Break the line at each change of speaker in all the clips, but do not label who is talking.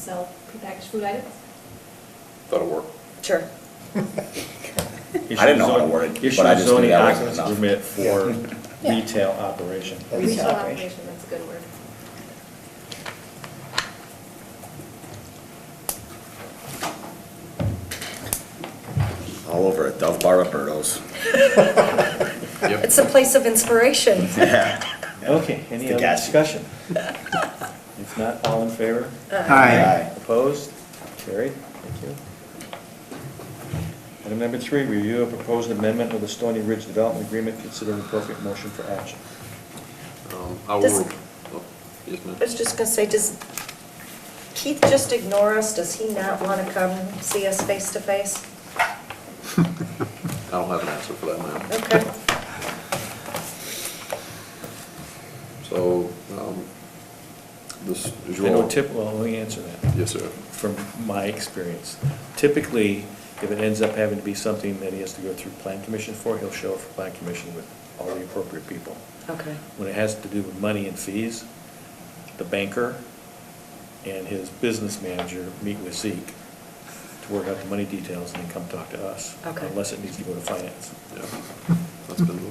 sell prepackaged food items?
That'll work.
Sure.
I didn't know how to word it, but I just knew that wasn't enough.
Issue zoning occupancy permit for
Yeah.
retail operation.
Retail
Retail
operation.
operation, that's a good word.
All over at Dove Bar Roberto's.
Yep.
It's a place of inspiration.
Yeah.
Okay,
It's
any
the
other
gas.
discussion? If not, all in favor?
Aye.
Opposed? Carried. Thank you. Item number three, review a proposed amendment of the Stony Ridge Development Agreement. Consider an appropriate motion for action.
Um, I will,
Does-
oh, yes, ma'am.
I was just gonna say, does Keith just ignore us? Does he not wanna come see us face to face?
I don't have an answer for that, ma'am.
Okay.
So, um, this
I
is your.
know tip, well, let me answer that.
Yes, sir.
From my experience, typically, if it ends up having to be something that he has to go through plan commission for, he'll show up for plan commission with all the appropriate people.
Okay.
when it has to do with money and fees, the banker and his business manager meet with Zeke to work out the money details and then come talk to us.
Okay.
Unless it needs to go to finance.
Yeah, that's been the,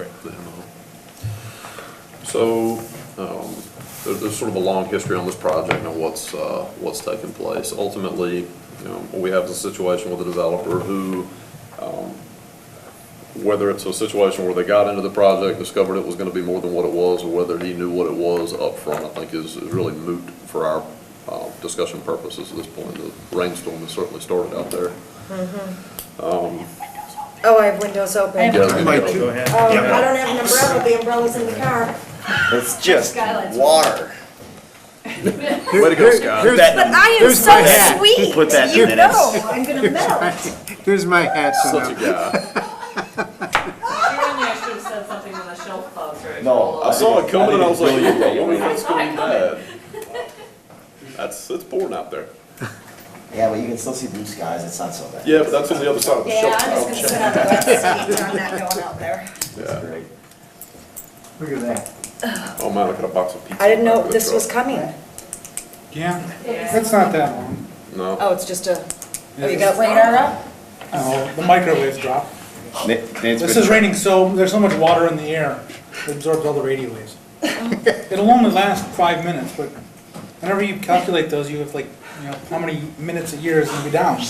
Right.
the MO. So, um, there, there's sort of a long history on this project and what's, uh, what's taken place. Ultimately, you know, what we have is a situation with a developer who, um, whether it's a situation where they got into the project, discovered it was gonna be more than what it was, or whether he knew what it was up front, I think is, is really moot for our, uh, discussion purposes at this point. The rainstorm has certainly started out there.
Oh, I have windows open.
I have-
Yeah,
Mike,
Go ahead.
Oh, I don't have an umbrella. The umbrella's in the car.
It's just
Skylights.
water.
Way to go, Scott.
Here's-
That-
But I am
Here's my
so
hat.
sweet.
Put that in
You
minutes.
know, I'm gonna melt.
Here's my hat, so
Such a
now,
guy.
Apparently I should have said something when the shelf fell through.
No,
I saw it coming, and I was like, I
Billion, billion,
wonder if
billion.
it's gonna be bad. That's, it's pouring out there.
Yeah, but you can still see blue skies, it's not so bad.
Yeah, but that's on the other side of the
Yeah,
shelf.
I'm just gonna sit on the wet seat. I'm not going out there.
That's great.
look at that.
Oh man, I got a box of pizza.
I didn't
in the
know
back of the
this was
truck.
coming.
Yeah,
Yeah.
that's not that long.
No,
Oh, it's just a, oh, you got radar up?
No, the microwave drop. This
This
is raining so, there's so much water in the air, it absorbs all the radio waves.
Oh.
It'll only last five minutes, but whenever you calculate those, you have like, you know, how many minutes a year is gonna be down.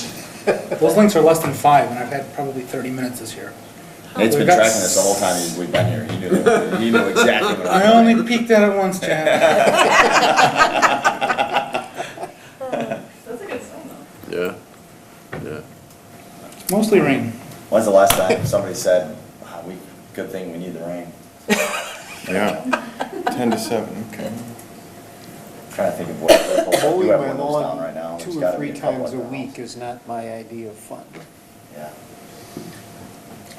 Those links are less than five, and I've had probably thirty minutes this year.
Nate's been
We've got
tracking this the whole time we've been here. He knew, he knew exactly what
I
I was
only
doing.
peeked at it once, Chad.
That's a good sign though.
yeah, yeah.
Mostly rain.
When's the last time somebody said, wow, we, good thing we need the rain?
Yeah, ten to seven, okay.
Trying to think of what, we
Mowing
do have
my
windows down right now.
lawn
There's
two or
gotta be
three
couple
times a
at the house.
week is not my idea of fun.
Yeah.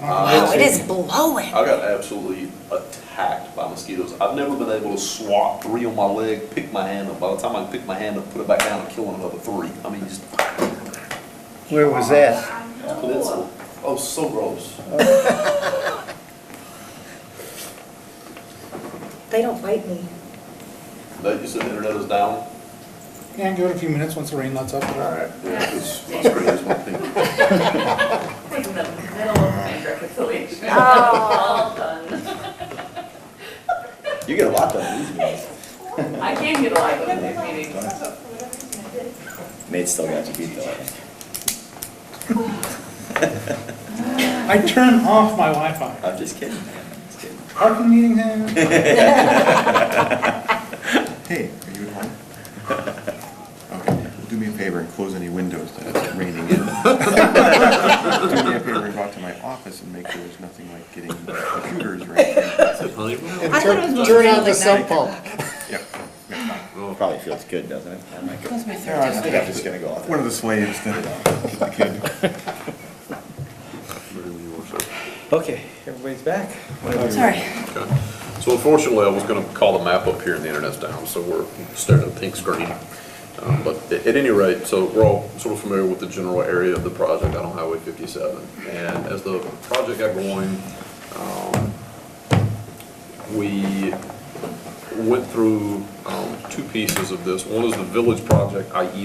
Wow, Oh, it is blowing.
I got absolutely attacked by mosquitoes. I've never been able to swat three on my leg, pick my hand up. By the time I can pick my hand up, put it back down, I'm killing another three. I mean, just,
Where was that?
it's, oh, so gross.
They don't bite me.
That, you said the internet is down?
Yeah, give it a few minutes once the rain lets up.
Yeah, 'cause my screen is my thing.
It's in the middle of bank reconciliation.
Oh.
All done.
You get a lot done these days.
I can get a lot of those meetings.
Nate's still got you beat though. I think.
I turn off my Wi-Fi.
I'm just kidding, man. I'm just kidding.
Parking meeting, eh?
Hey, are you at home? Okay, do me a favor and close any windows that it's raining in. Do me a favor and go out to my office and make sure there's nothing like getting computers or anything.
I thought it was supposed to
Turn
be
out the
like nine
sump pump.
Yeah.
Probably feels good, doesn't it? I might go-
Close my
I think I'm just gonna go out there.
One of the slaves that, the kid.
Okay, everybody's back.
Sorry.
Okay. So unfortunately, I was going to call the map up here and the internet's down, so we're staring at a pink screen. Um, But a- at any rate, so we're all sort of familiar with the general area of the project out on Highway 57. And as the project got going, um, we went through um, two pieces of this. One is the village project, i.e.